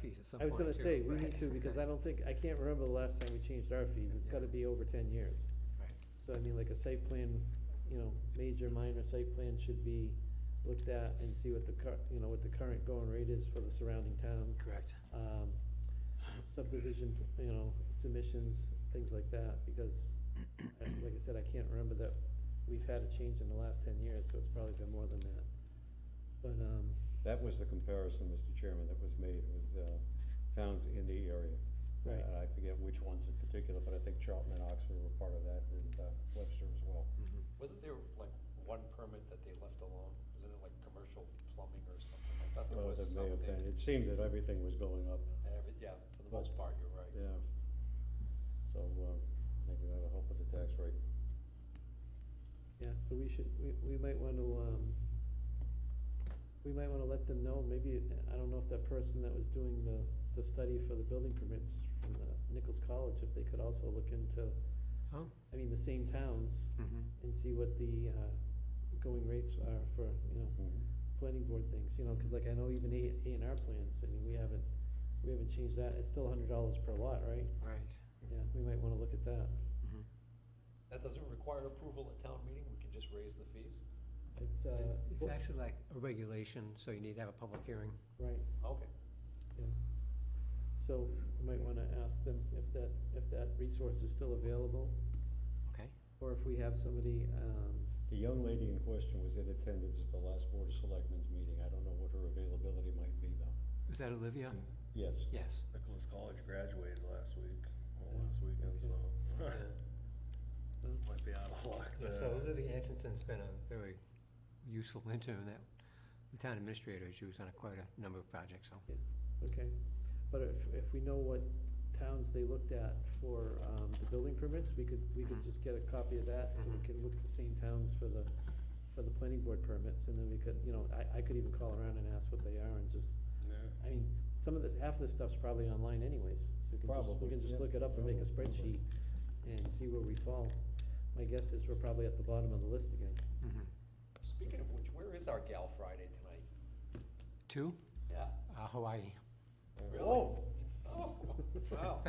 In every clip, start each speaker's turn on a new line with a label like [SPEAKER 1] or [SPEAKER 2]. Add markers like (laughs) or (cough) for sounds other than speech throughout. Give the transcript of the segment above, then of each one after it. [SPEAKER 1] fees at some
[SPEAKER 2] I
[SPEAKER 1] point
[SPEAKER 2] was gonna
[SPEAKER 1] too,
[SPEAKER 2] say, we
[SPEAKER 1] right?
[SPEAKER 2] need to, because I don't think, I can't remember the last time we changed our fees, it's gotta be over ten years.
[SPEAKER 1] Right.
[SPEAKER 2] So I mean, like a site plan, you know, major, minor site plan should be looked at and see what the cur- you know, what the current going rate is for the surrounding towns.
[SPEAKER 1] Correct.
[SPEAKER 2] Um, subdivision, you know, submissions, things like that, because, uh, like I said, I can't remember that we've had a change in the last ten years, so it's probably been more than that. But, um,
[SPEAKER 3] That was the comparison, Mr. Chairman, that was made, was uh, towns in the area.
[SPEAKER 2] Right.
[SPEAKER 3] And I forget which ones in particular, but I think Charlton and Oxford were part of that, and uh, Webster as well.
[SPEAKER 1] Mhm.
[SPEAKER 4] Wasn't there like one permit that they left alone? Wasn't it like commercial plumbing or something? I thought there
[SPEAKER 3] Uh,
[SPEAKER 4] was
[SPEAKER 3] that may
[SPEAKER 4] something.
[SPEAKER 3] have been. It seemed that everything was going up,
[SPEAKER 4] that every- Yeah, for the most part, you're right.
[SPEAKER 3] yeah. So uh, I think that'll help with the tax rate.
[SPEAKER 2] Yeah, so we should, we, we might wanna, um, we might wanna let them know, maybe, I don't know if that person that was doing the, the study for the building permits from the Nichols College, if they could also look into,
[SPEAKER 1] Oh,
[SPEAKER 2] I mean, the same towns
[SPEAKER 1] mhm.
[SPEAKER 2] and see what the, uh, going rates are for, you know,
[SPEAKER 4] Mm-hmm.
[SPEAKER 2] planning board things, you know, cause like I know even A, A and R plans, I mean, we haven't, we haven't changed that, it's still hundred dollars per lot, right?
[SPEAKER 1] right.
[SPEAKER 2] Yeah, we might wanna look at that,
[SPEAKER 1] Mhm.
[SPEAKER 4] That doesn't require approval at town meeting, we can just raise the fees?
[SPEAKER 2] it's, uh.
[SPEAKER 1] It's
[SPEAKER 2] well,
[SPEAKER 1] actually like a regulation, so you need to have a public hearing.
[SPEAKER 2] Right.
[SPEAKER 4] Okay.
[SPEAKER 2] Yeah. So you might wanna ask them if that's, if that resource is still available,
[SPEAKER 1] Okay.
[SPEAKER 2] or if we have somebody, um,
[SPEAKER 3] The young lady in question was in attendance at the last Board of Selectmen's meeting. I don't know what her availability might be, though.
[SPEAKER 1] Is that Olivia?
[SPEAKER 3] Yes.
[SPEAKER 1] Yes. (laughs)
[SPEAKER 5] Nicholas College graduated last week, well,
[SPEAKER 2] Yeah,
[SPEAKER 5] last weekend,
[SPEAKER 4] (laughs)
[SPEAKER 2] okay.
[SPEAKER 5] so
[SPEAKER 1] Yeah.
[SPEAKER 5] might be out of luck
[SPEAKER 1] Yeah,
[SPEAKER 5] there.
[SPEAKER 1] So Olivia Atkinson's been a very useful intern that the town administrator has used on a- quite a number of projects, so.
[SPEAKER 2] okay. But if, if we know what towns they looked at for, um, the building permits, we could, we could
[SPEAKER 3] Mm-hmm.
[SPEAKER 1] Mhm.
[SPEAKER 2] just get a copy of that, so
[SPEAKER 1] Mhm.
[SPEAKER 2] we can look at the same towns for the, for the planning board permits, and then we could, you know, I, I could even call around and ask what they are and just,
[SPEAKER 5] Yeah.
[SPEAKER 2] I mean, some of this, half of this stuff's probably online anyways, so we can just, we
[SPEAKER 3] Probably,
[SPEAKER 2] can just
[SPEAKER 3] yeah,
[SPEAKER 2] look it up and make a
[SPEAKER 3] probably,
[SPEAKER 2] spreadsheet
[SPEAKER 3] probably.
[SPEAKER 2] and see where we fall. My guess is we're probably at the bottom of the list again.
[SPEAKER 1] Mhm.
[SPEAKER 4] Speaking of which, where is our gal Friday tonight?
[SPEAKER 1] Two,
[SPEAKER 4] Yeah.
[SPEAKER 1] uh, Hawaii.
[SPEAKER 4] Really?
[SPEAKER 3] Oh,
[SPEAKER 4] (laughs) Oh, wow.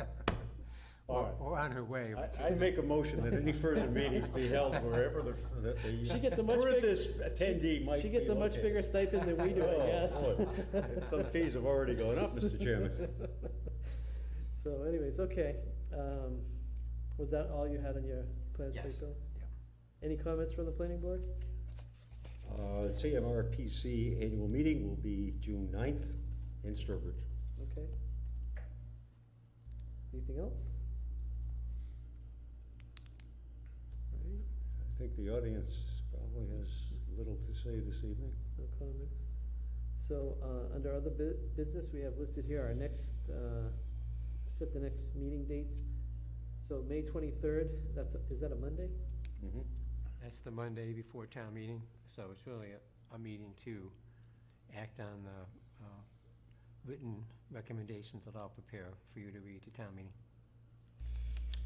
[SPEAKER 3] all
[SPEAKER 1] Or
[SPEAKER 3] right.
[SPEAKER 1] or on her way. which-
[SPEAKER 3] I, I make a motion that
[SPEAKER 2] (laughs)
[SPEAKER 3] any further meetings be held wherever the, the. the
[SPEAKER 2] She gets a much big-
[SPEAKER 3] Furthest attendee might
[SPEAKER 2] She
[SPEAKER 3] be
[SPEAKER 2] gets a much
[SPEAKER 3] located.
[SPEAKER 2] bigger stipend than we do, I
[SPEAKER 3] (laughs) Oh,
[SPEAKER 2] guess.
[SPEAKER 3] boy. Some fees have already gone up, Mr. Chairman.
[SPEAKER 2] So anyways, okay, um, was that all you had on your plans,
[SPEAKER 1] Yes,
[SPEAKER 2] Bill?
[SPEAKER 1] yeah.
[SPEAKER 2] Any comments from the planning board?
[SPEAKER 3] Uh, CMRPC annual meeting will be June 9th in Sturbridge.
[SPEAKER 2] Okay. Anything else? Alright,
[SPEAKER 3] I think the audience probably has little to say this evening.
[SPEAKER 2] No comments. So, uh, under other bu- business, we have listed here our next, uh, s- set the next meeting dates. So May twenty-third, that's, a- is that a Monday?
[SPEAKER 5] Mm-hmm.
[SPEAKER 1] That's the Monday before town meeting, so it's really a, a meeting to act on the, uh, written recommendations that I'll prepare for you to read to town meeting.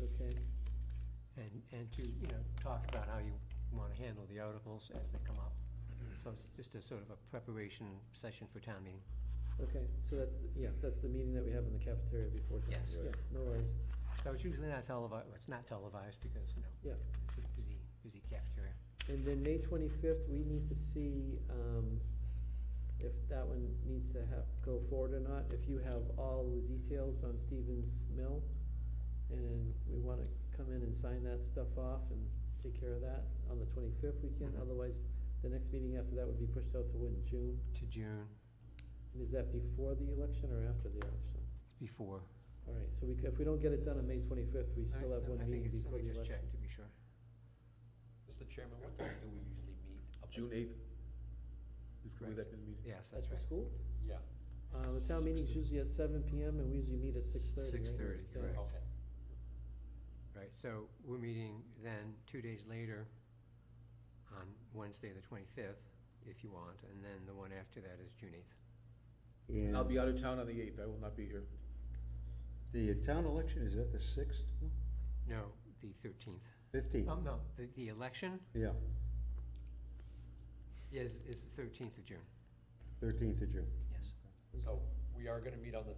[SPEAKER 2] Okay,
[SPEAKER 1] And, and to, you know, talk about how you wanna handle the articles as they come up.
[SPEAKER 2] Mm-hmm.
[SPEAKER 1] So it's just a sort of a preparation session for town meeting.
[SPEAKER 2] okay, so that's, the- yeah, that's the meeting that we have in the cafeteria before tonight.
[SPEAKER 1] Yes.
[SPEAKER 2] Yeah, no worries.
[SPEAKER 1] So it's usually not televised, it's not televised because, you know,
[SPEAKER 2] Yeah.
[SPEAKER 1] it's a busy, busy cafeteria.
[SPEAKER 2] And then May twenty-fifth, we need to see, um, if that one needs to have, go forward or not, if you have all the details on Stevens Mill. And we wanna come in and sign that stuff off and take care of that on the twenty-fifth weekend,
[SPEAKER 1] Mhm.
[SPEAKER 2] otherwise, the next meeting after that would be pushed out to when, June?
[SPEAKER 1] To June,
[SPEAKER 2] And is that before the election or after the election?
[SPEAKER 1] it's before.
[SPEAKER 2] Alright, so we, c- if we don't get it done on May twenty-fifth, we still
[SPEAKER 1] I-
[SPEAKER 2] have one
[SPEAKER 1] I think
[SPEAKER 2] meeting
[SPEAKER 1] it's-
[SPEAKER 2] before the election.
[SPEAKER 1] Let me just check to be sure.
[SPEAKER 4] Mr. Chairman, what time do we usually meet? Up at-
[SPEAKER 5] June eighth. Is,
[SPEAKER 1] Correct.
[SPEAKER 5] would that be the meeting?
[SPEAKER 1] Yes,
[SPEAKER 2] At
[SPEAKER 1] that's
[SPEAKER 2] the
[SPEAKER 1] right.
[SPEAKER 2] school?
[SPEAKER 4] Yeah,
[SPEAKER 2] Uh, the town meeting's usually at seven PM and we usually meet at six thirty,
[SPEAKER 1] 6:30, correct.
[SPEAKER 4] okay.
[SPEAKER 1] Right, so we're meeting then two days later on Wednesday, the twenty-fifth, if you want, and then the one after that is June eighth.
[SPEAKER 3] And
[SPEAKER 5] I'll be out of town on the eighth, I will not be here.
[SPEAKER 3] the town election, is that the 6th?
[SPEAKER 1] No, the thirteenth.
[SPEAKER 3] 15th?
[SPEAKER 1] Oh,
[SPEAKER 5] Um,
[SPEAKER 1] no, the, the election
[SPEAKER 3] Yeah,
[SPEAKER 1] is, is the thirteenth of June,
[SPEAKER 3] 13th of June.
[SPEAKER 1] yes.
[SPEAKER 4] So we are gonna meet on the